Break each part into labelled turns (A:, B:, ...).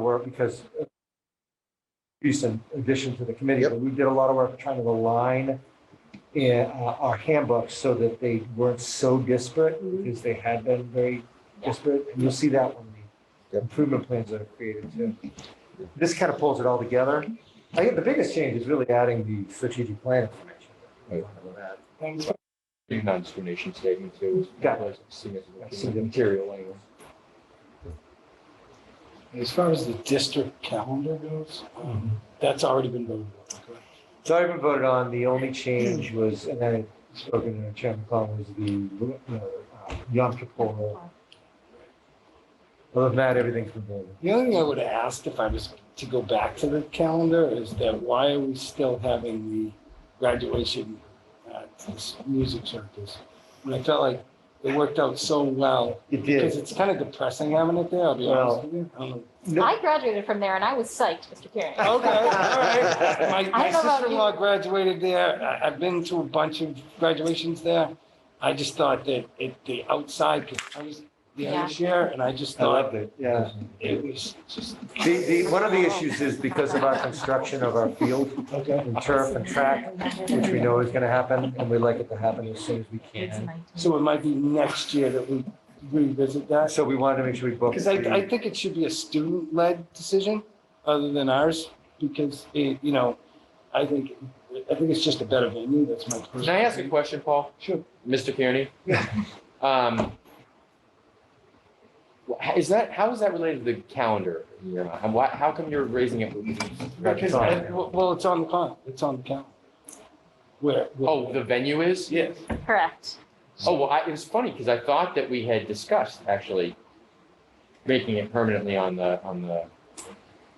A: work because uh, piece in addition to the committee,
B: Yep.
A: but we did a lot of work trying to align in uh, our handbooks so that they weren't so disparate because they had been very disparate. And you'll see that when the
B: Yep.
A: improvement plans that are created too. This kind of pulls it all together. I think the biggest change is really adding the strategic plan information.
B: Right.
A: Thanks.
C: The non-discrimination statement too.
A: Got
C: was significant
A: I
C: in
A: see
C: the
A: them.
C: Material language.
D: As far as the district calendar goes, um, that's already been voted on. correct?
A: So I haven't voted on, the only change was, and I had spoken to Chairman Collins, was the uh, Yom Kippur. Other than that, everything's been voted.
D: The only thing I would ask if I was to go back to the calendar is that why are we still having the graduation at this music circus? And I felt like it worked out so well
A: It
D: because
A: did.
D: it's kind of depressing having it there, I'll be honest
A: Well,
D: with you. Um, I don't know.
A: No,
E: I graduated from there and I was psyched, Mr. Kearney.
D: Okay, all right. My,
E: I
D: my
E: don't know about
D: sister-in-law graduated there. I, I've been to a bunch of graduations there. I just thought that it, the outside, 'cause I was the
E: Yeah.
D: other year, and I just
A: I
D: thought
A: loved it, yeah.
D: it was just,
A: The, the, one of the issues is because of our construction of our field
D: okay.
A: and turf and track, which we know is gonna happen, and we like it to happen as soon as we can.
D: So it might be next year that we revisit that.
A: So we wanted to make sure we booked.
D: Because I,
A: the-
D: I think it should be a student-led decision other than ours, because it, you know, I think, I think it's just a better venue. That's my personal.
C: Can I ask a
D: opinion.
C: question, Paul?
D: Sure.
C: Mr. Kearney?
A: Yeah.
C: Um, wh- Is that, how is that related to the calendar? in your mind? And why, how come you're raising it? with-
D: Because, I- well, well, it's on the con, it's on the calendar. Where? where-
C: Oh, the venue is?
D: Yes.
E: Correct.
C: Oh, well, I, it was funny because I thought that we had discussed actually making it permanently on the, on the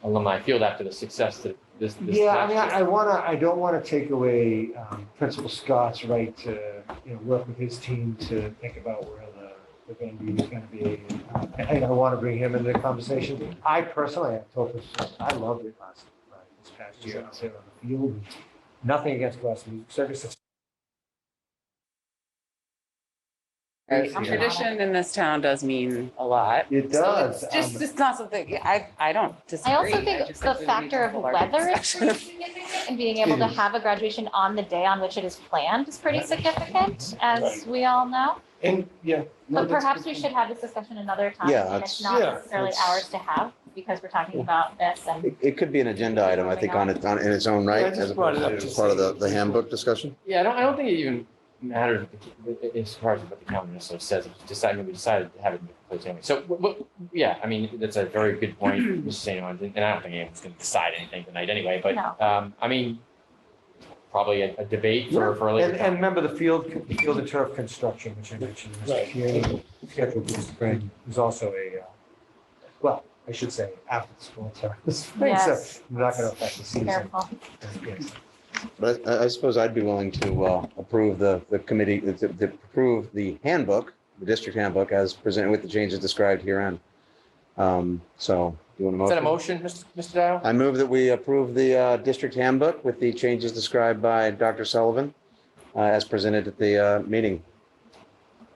C: alumni field after the success that this, this
A: Yeah, I
C: last
A: mean, I I
C: year.
A: wanna, I don't wanna take away um, Principal Scott's right to, you know, work with his team to think about where the, the venue is gonna be. I think I wanna bring him into the conversation. I personally, I told Principal, Scott, I loved it last, uh, this past year, I was there on the field. Nothing against Gloucester Music Circus. It's-
F: Um, Tradition in this town does mean a lot.
A: It
F: So
A: does.
F: it's Just,
A: um,
F: it's not something, I, I don't
E: I
F: disagree.
E: also think
F: just
E: the
F: we need
E: factor
F: a
E: of
F: larger
E: weather is
F: discussion.
E: pretty significant and being able to have a graduation on the day on which it is planned is pretty significant, as
D: Right.
E: we all know.
D: And, yeah. no,
E: But
D: that's
E: perhaps
D: good.
E: we should have this discussion another time,
B: Yeah,
E: and
B: that's-
E: it's not
D: Yeah,
E: necessarily
D: that's-
E: ours to have, because we're talking about this and.
B: It, it could be an agenda item, I think, on its, on, in its own right,
D: Yeah, I just
B: as
D: brought it
B: opposed
D: up
B: to
D: just
B: part of the,
D: saying-
B: the handbook discussion.
C: Yeah, I don't, I don't think it even matters what the- as far as what the calendar necessarily says. It's decided, we decided to have it in the proposed anyway. So, wh- wh- yeah, I mean, that's a very good point, Mr. St. John, and I don't think anyone's gonna decide anything tonight anyway, but,
E: No.
C: um, I mean, probably a, a debate for, for
A: And,
C: later.
A: and
C: time.
A: remember the field, the field and turf construction, which I mentioned, Mr.
D: Right.
A: Kearney, scheduled this spring, is also a, uh, well, I should say, after the school term, this spring, so
E: Yes.
A: not gonna affect the season.
E: Careful.
A: Yes.
B: But I, I suppose I'd be willing to, uh, approve the, the committee, to, to approve the handbook, the district handbook as presented with the changes described herein. Um, so, do you want a
C: Is
B: motion?
C: that a motion, Mr. Mr. Dow?
B: I move that we approve the uh, district handbook with the changes described by Dr. Sullivan uh, as presented at the uh, meeting.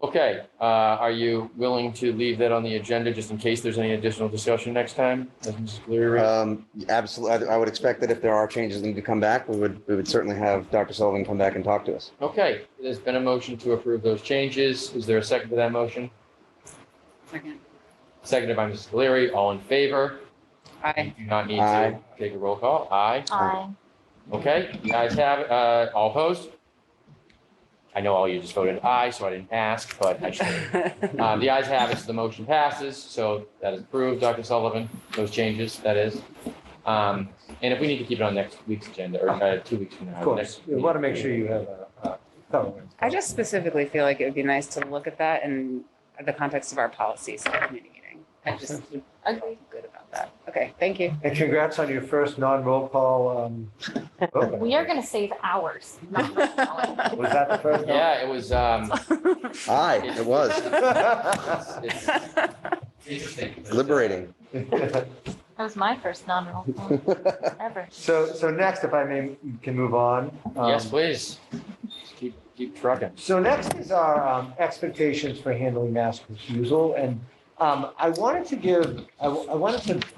C: Okay, uh, are you willing to leave that on the agenda just in case there's any additional discussion next time? As Mrs. Cleary-
B: Uh, Absolutely, Um, I I would expect that if there are changes that need to come back, we would, we would certainly have Dr. Sullivan come back and talk to us.
C: Okay, there's been a motion to approve those changes. Is there a second to that motion?
F: Second.
C: Seconded by Mrs. Cleary. All in favor?
F: I,
C: You do not need to
B: Aye.
C: take a roll call. Aye.
E: I,
C: Okay, you guys have, it. uh, all opposed? I know all you just voted aye, so I didn't ask, but I should. Um, the ayes have it, so the motion passes, so that is approved, Dr. Sullivan, those changes, that is. Um, and if we need to keep it on next week's agenda, or, uh, two weeks from now.
A: Of course,
C: next
A: you
C: meeting.
A: want to make sure you have a, a thorough.
F: I just specifically feel like it would be nice to look at that in the context of our policy subcommittee meeting. I just, I'm good about that. Okay, thank you.
A: And congrats on your first non-roll call. um, vote.
E: we are gonna save hours, not hours.
A: Was that the first? one?
C: Yeah, it was, um,
B: Aye, it was
C: it's interesting.
B: liberating.
E: That was my first non-roll call ever.
A: So, so next, if I may, can move on. um,
C: Yes, please. Just Keep, keep trucking.
A: So next is our um, expectations for handling mass refusal. And um, I wanted to give, I I wanted to